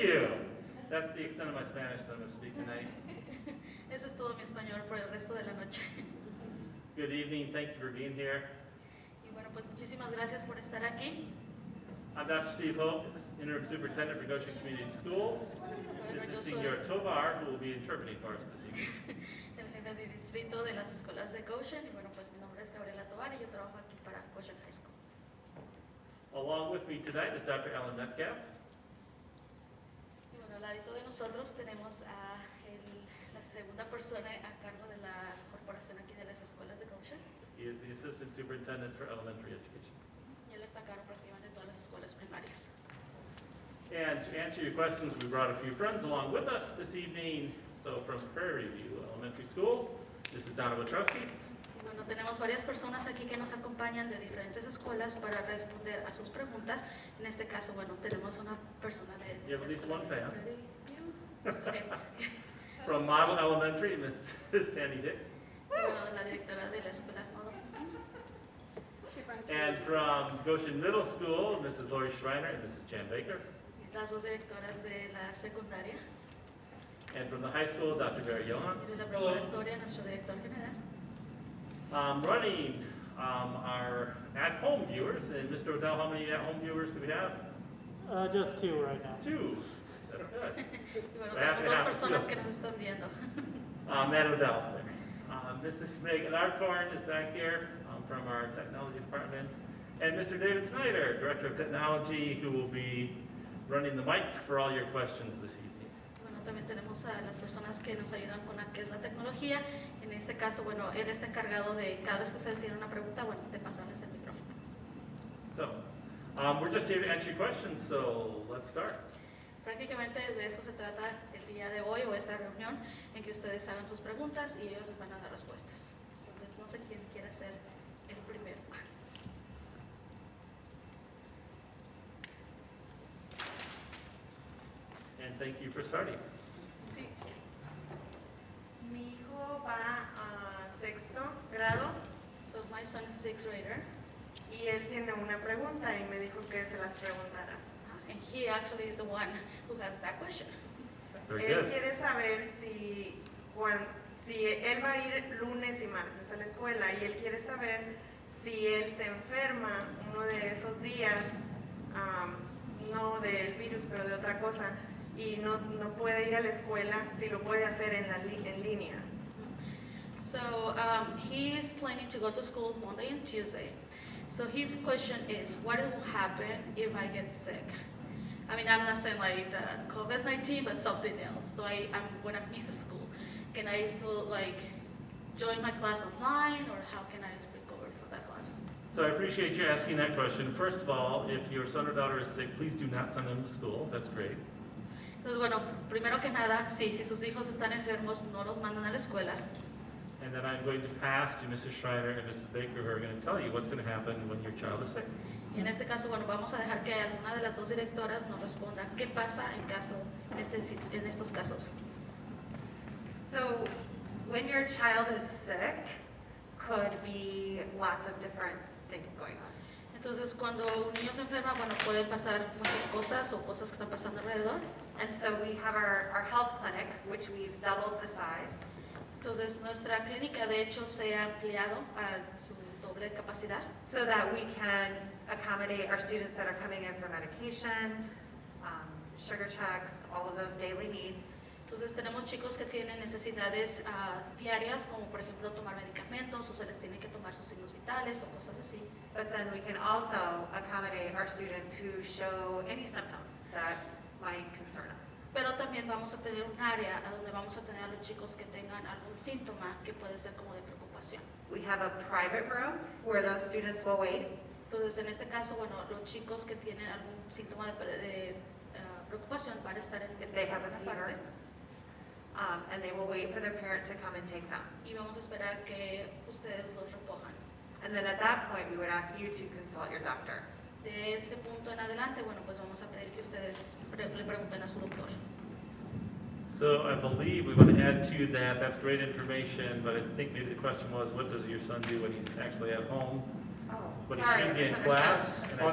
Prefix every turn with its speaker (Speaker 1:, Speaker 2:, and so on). Speaker 1: you. That's the extent of my Spanish that I'm going to speak tonight.
Speaker 2: Eso es todo mi español por el resto de la noche.
Speaker 1: Good evening. Thank you for being here.
Speaker 2: Y bueno, pues muchísimas gracias por estar aquí.
Speaker 1: I'm Dr. Steve Hope, Interim Superintendent for Goshen Community Schools. This
Speaker 2: Bueno, yo
Speaker 1: is
Speaker 2: soy
Speaker 1: Senor Tovar, who will be interpreting for us this evening.
Speaker 2: el jefe de distrito de las escuelas de Goshen y bueno, pues mi nombre es Gabriela Tovar y yo trabajo aquí para Goshen High School.
Speaker 1: Along with me tonight is Dr. Alan Metcalf.
Speaker 2: Y bueno, al ladito de nosotros tenemos a el- la segunda persona a cargo de la corporación aquí de las escuelas de Goshen
Speaker 1: He is the Assistant Superintendent for Elementary Education.
Speaker 2: y él está a cargo prácticamente de todas las escuelas primarias.
Speaker 1: And to answer your questions, we brought a few friends along with us this evening. So from Prairie View Elementary School, this is Donna Wachowski.
Speaker 2: Y Bueno, tenemos varias personas aquí que nos acompañan de diferentes escuelas para responder a sus preguntas. En este caso, bueno, tenemos una persona de...
Speaker 1: You have at least one fan.
Speaker 2: Ok.
Speaker 1: From Model Elementary, Mrs. Tandy Hicks.
Speaker 2: Bueno, la directora de la escuela. ¿no?
Speaker 1: And from Goshen Middle School, Mrs. Lori Schreiner and Mrs. Jan Baker.
Speaker 2: Las dos directoras de la secundaria.
Speaker 1: And from the high school, Dr. Barry
Speaker 2: Y
Speaker 1: Johans.
Speaker 2: de la preparatoria, nuestro director general.
Speaker 1: Um, running um, our at-home viewers, and Mr. Odell, how many at-home viewers do we have?
Speaker 3: Uh, just two right now.
Speaker 1: Two. That's good.
Speaker 2: Y bueno,
Speaker 1: Ah,
Speaker 2: tenemos dos
Speaker 1: claro.
Speaker 2: personas que nos están viendo.
Speaker 1: Uh, Matt Odell. Uh, Mrs. Meg Larkorn is back here um, from our technology department. And Mr. David Snyder, Director of Technology, who will be running the mic for all your questions this evening.
Speaker 2: Bueno, también tenemos a las personas que nos ayudan con la que es la tecnología. En este caso, bueno, él está encargado de cada vez que ustedes tienen una pregunta, bueno, de pasarles el micrófono.
Speaker 1: So, um, we're just here to answer your questions, so let's start.
Speaker 2: Prácticamente de eso se trata el día de hoy o esta reunión, en que ustedes hagan sus preguntas y ellos les van a dar respuestas. Entonces, no sé quién quiere ser el primero.
Speaker 1: And thank you for starting.
Speaker 2: Sí,
Speaker 4: Mi hijo va a sexto grado
Speaker 2: so my son is a sixth grader,
Speaker 4: y él tiene una pregunta y me dijo que se las preguntara.
Speaker 2: uh, and he actually is the one who has that question.
Speaker 1: Very
Speaker 4: él
Speaker 1: good.
Speaker 4: quiere saber si, cuan- si él va a ir lunes y martes a la escuela y él quiere saber si él se enferma uno de esos días, am, no del virus, pero de otra cosa, y no, no puede ir a la escuela, si lo puede hacer en, la li- en línea.
Speaker 2: So um, he is planning to go to school Monday and Tuesday. So his question is, what will happen if I get sick? I mean, I'm not saying like the COVID-19, but something else. So I, I'm, when I miss school, can I still like join my class online or how can I recover from that class?
Speaker 1: So I appreciate you asking that question. First of all, if your son or daughter is sick, please do not send them to school. That's great.
Speaker 2: Entonces, bueno, primero que nada, sí, si sus hijos están enfermos, no los mandan a la escuela.
Speaker 1: And then I'm going to pass to Mrs. Schreiner and Mrs. Baker, who are going to tell you what's going to happen when your child is sick.
Speaker 2: Y en este caso, bueno, vamos a dejar que alguna de las dos directoras nos responda qué pasa en caso, en, este, si- en estos casos.
Speaker 5: So when your child is sick, could be lots of different things going on.
Speaker 2: Entonces, cuando un niño se enferma, bueno, pueden pasar muchas cosas o cosas que están pasando alrededor.
Speaker 5: And so we have our, our health clinic, which we've doubled the size.
Speaker 2: Entonces, nuestra clínica, de hecho, se ha ampliado a su doble capacidad
Speaker 5: so that we can accommodate our students that are coming in for medication, um, sugar checks, all of those daily needs.
Speaker 2: Entonces tenemos chicos que tienen necesidades ah, diarias, como por ejemplo tomar medicamentos o se les tiene que tomar sus signos vitales o cosas así.
Speaker 5: But then we can also accommodate our students who show any symptoms that might concern us.
Speaker 2: Pero también vamos a tener un área a donde vamos a tener a los chicos que tengan algún síntoma que puede ser como de preocupación.
Speaker 5: We have a private room where those students will wait,
Speaker 2: Entonces en este caso, bueno, los chicos que tienen algún síntoma de, pre- de, ah, preocupación van a estar en
Speaker 5: If they have a
Speaker 2: en una
Speaker 5: fever. um, and they will wait for their parent to come and take them.
Speaker 2: y vamos a esperar que ustedes los recojan.
Speaker 5: And then at that point, we would ask you to consult your doctor.
Speaker 2: De ese punto en adelante, bueno, pues vamos a pedir que ustedes pre- le pregunten a su doctor.
Speaker 1: So I believe we want to add to that, that's great information, but I think maybe the question was, what does your son do when he's actually at home?
Speaker 5: Oh,
Speaker 1: But he
Speaker 5: sorry,
Speaker 1: shouldn't be in
Speaker 5: misunderstood.
Speaker 1: class. and I